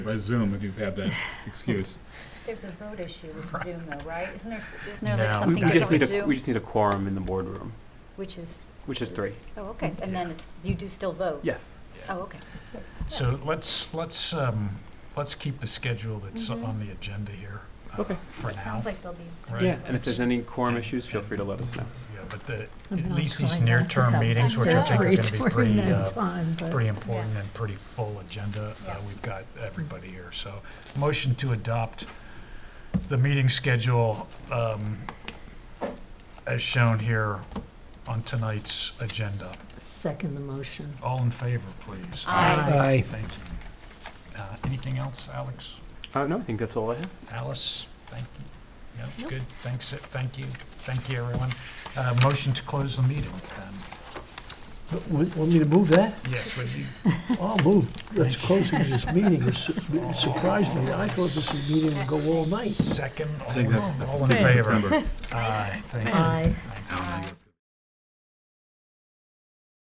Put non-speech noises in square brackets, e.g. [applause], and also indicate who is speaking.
Speaker 1: by Zoom if you've had that excuse.
Speaker 2: There's a vote issue with Zoom though, right? Isn't there, s- isn't there like
Speaker 3: No.
Speaker 2: something
Speaker 4: We just
Speaker 2: different
Speaker 4: need
Speaker 2: with
Speaker 4: a,
Speaker 2: Zoom?
Speaker 4: we just need a quorum in the boardroom,
Speaker 2: Which is,
Speaker 4: which is three.
Speaker 2: oh, okay, and then it's, you do still vote?
Speaker 4: Yes.
Speaker 2: Oh, okay.
Speaker 3: So let's, let's, um, let's keep the schedule that's
Speaker 2: Mhm.
Speaker 3: on the agenda here. uh,
Speaker 4: Okay.
Speaker 3: For now,
Speaker 2: Sounds like there'll be,
Speaker 3: right?
Speaker 4: Yeah, and if there's any quorum
Speaker 3: Yeah.
Speaker 4: issues, feel free to let us know.
Speaker 3: Yeah, but the,
Speaker 5: I'm
Speaker 3: at
Speaker 5: not
Speaker 3: least these
Speaker 5: trying not to
Speaker 3: near-term
Speaker 5: have
Speaker 3: meetings,
Speaker 2: back
Speaker 3: which I
Speaker 2: to
Speaker 3: think are
Speaker 5: surgery
Speaker 3: gonna be
Speaker 5: during
Speaker 3: pretty,
Speaker 5: that
Speaker 3: uh,
Speaker 5: time, but-
Speaker 3: pretty important and pretty full agenda. Uh,
Speaker 2: Yeah.
Speaker 3: We've got everybody here, so motion to adopt the meeting schedule um, as shown here on tonight's agenda.
Speaker 5: Second the motion.
Speaker 3: All in favor, please?
Speaker 2: Aye.
Speaker 3: Aye. Thank you. Uh, Anything else, Alex?
Speaker 4: Uh, no, I think that's all I have.
Speaker 3: Alice, thank you. Yep,
Speaker 5: Nope.
Speaker 3: good, thanks, uh, thank you, thank you, everyone. Uh, Motion to close the meeting, then.
Speaker 6: Want want me to move that?
Speaker 3: Yes, would you?
Speaker 6: I'll move. Let's close this meeting. It su- it surprised me. I thought this meeting would go all night.
Speaker 3: Second,
Speaker 1: I think that's
Speaker 3: [laughs] all all in
Speaker 1: the
Speaker 3: favor?
Speaker 1: September.
Speaker 3: Aye, thank you.
Speaker 5: Aye.
Speaker 3: Thank you. [laughs]